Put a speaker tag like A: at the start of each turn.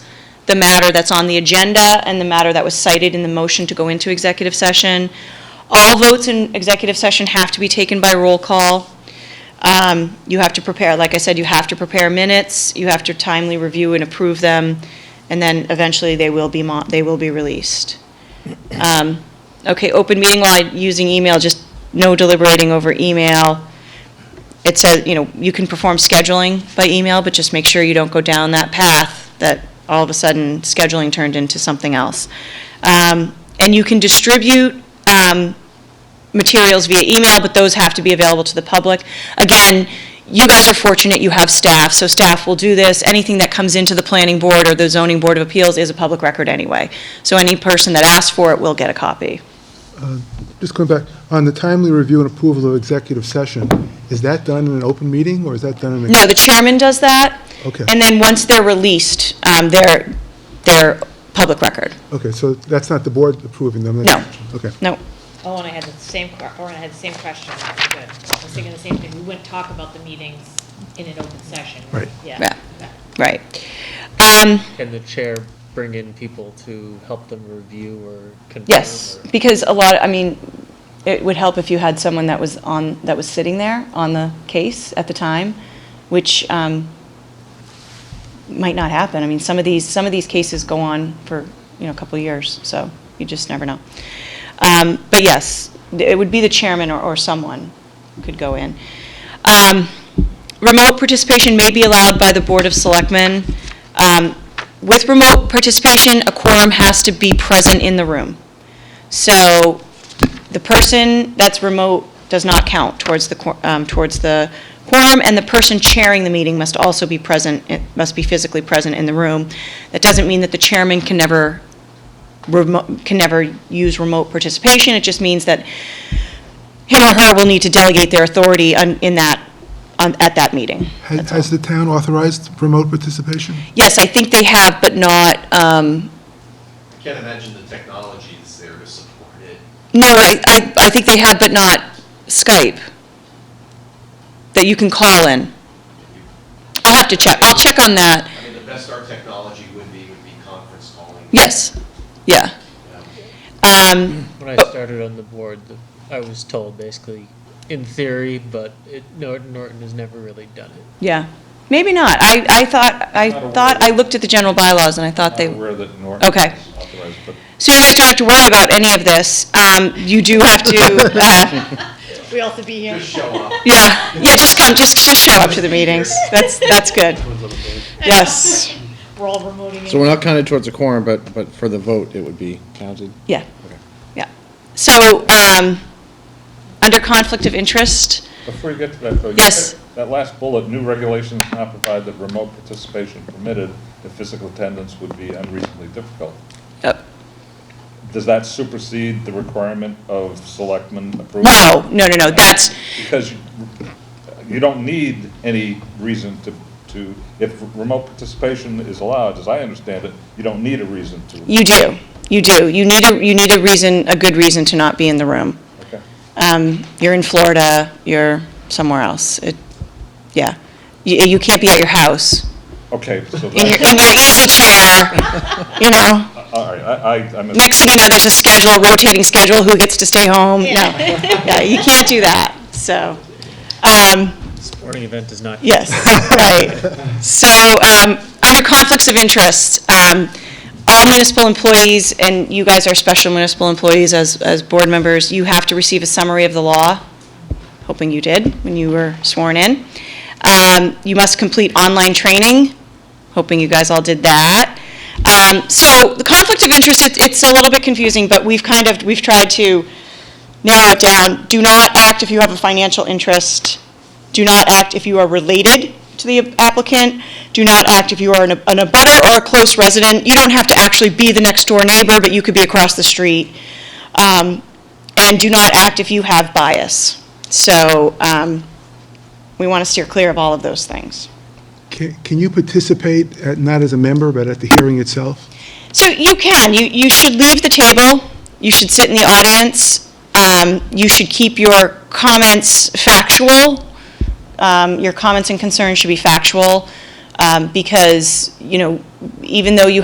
A: the matter that's on the agenda and the matter that was cited in the motion to go into executive session. All votes in executive session have to be taken by roll call. Um, You have to prepare, like I said, you have to prepare minutes, you have to timely review and approve them, and then eventually they will be, mo- they will be released. Um, Okay, open meeting law, using email, just no deliberating over email. It says, you know, you can perform scheduling by email, but just make sure you don't go down that path that all of a sudden scheduling turned into something else. Um, And you can distribute um, materials via email, but those have to be available to the public. Again, you guys are fortunate you have staff, so staff will do this. Anything that comes into the planning board or the zoning board of appeals is a public record anyway. So any person that asks for it will get a copy.
B: Just going back, on the timely review and approval of executive session, is that done in an open meeting, or is that done in a...
A: No, the chairman does that.
B: Okay.
A: And then once they're released, um, they're, they're public record.
B: Okay, so that's not the board approving them?
A: No.
B: Okay.
A: No,
C: Oh, and I had the same, que- or I had the same question, good. I was thinking the same thing, we wouldn't talk about the meetings in an open session.
B: Right.
A: Yeah.
C: Yeah.
A: right. Um,
D: Can the chair bring in people to help them review or confirm?
A: Yes,
D: or-
A: because a lot, I mean, it would help if you had someone that was on, that was sitting there on the case at the time, which um, might not happen. I mean, some of these, some of these cases go on for, you know, a couple of years, so you just never know. Um, But yes, it would be the chairman or- or someone could go in. Um, Remote participation may be allowed by the Board of Selectmen. Um, With remote participation, a quorum has to be present in the room. So the person that's remote does not count towards the, quor- um, towards the quorum, and the person chairing the meeting must also be present, it must be physically present in the room. That doesn't mean that the chairman can never, remo- can never use remote participation. It just means that him or her will need to delegate their authority on- in that, on- at that meeting.
B: Has has the town authorized remote participation?
A: Yes, I think they have, but not, um,
E: Can't imagine the technology that's there to support it.
A: No, I, I, I think they have, but not Skype, that you can call in. I'll have to check, I'll check on that,
E: I mean, the best our technology would be, would be conference calling.
A: yes, yeah. Um,
D: When I
A: but-
D: started on the board, the- I was told basically, in theory, but it, Norton, Norton has never really done it.
A: yeah, maybe not, I, I thought, I thought, I looked at the general bylaws and I thought they,
F: Not aware that Norton
A: Okay.
F: is authorized, but
A: so you guys don't have to worry about any of this, um, you do have to, uh,
C: We also be here.
E: Just show up.
A: yeah, yeah, just come, just, just show up to the meetings, that's, that's good. Yes,
C: We're all remoting.
G: So we're not counted towards the quorum, but, but for the vote, it would be counted?
A: yeah.
G: Okay.
A: Yeah. So, um, under conflict of interest,
F: before you get to that, though. you
A: Yes.
F: said That last bullet, new regulations not provide that remote participation permitted if physical attendance would be unreasonably difficult.
A: uh,
F: Does that supersede the requirement of selectmen approval?
A: no, no, no, no, that's,
F: Because you- you don't need any reason to, to, if remote participation is allowed, as I understand it, you don't need a reason to.
A: you do, you do. You need a, you need a reason, a good reason to not be in the room.
F: Okay.
A: Um, You're in Florida, you're somewhere else. It, yeah. You, you can't be at your house,
F: Okay, so
A: in your,
F: that,
A: in your easy chair, you know?
F: all right, I, I, I missed.
A: Next thing you know, there's a schedule, rotating schedule, who gets to stay home? No. Yeah, you can't do that, so. um,
D: Sporting event does not.
A: Yes, right. So, um, under conflicts of interest, um, all municipal employees, and you guys are special municipal employees as, as board members, you have to receive a summary of the law, hoping you did when you were sworn in. Um, You must complete online training, hoping you guys all did that. Um, So, the conflict of interest, it's, it's a little bit confusing, but we've kind of, we've tried to narrow it down. Do not act if you have a financial interest. Do not act if you are related to the applicant. Do not act if you are an an abutter or a close resident. You don't have to actually be the next-door neighbor, but you could be across the street. Um, And do not act if you have bias. So um, we want to steer clear of all of those things.
B: Can can you participate, at- not as a member, but at the hearing itself?
A: So you can, you, you should leave the table, you should sit in the audience, um, you should keep your comments factual. Um, your comments and concerns should be factual, um, because, you know, even though you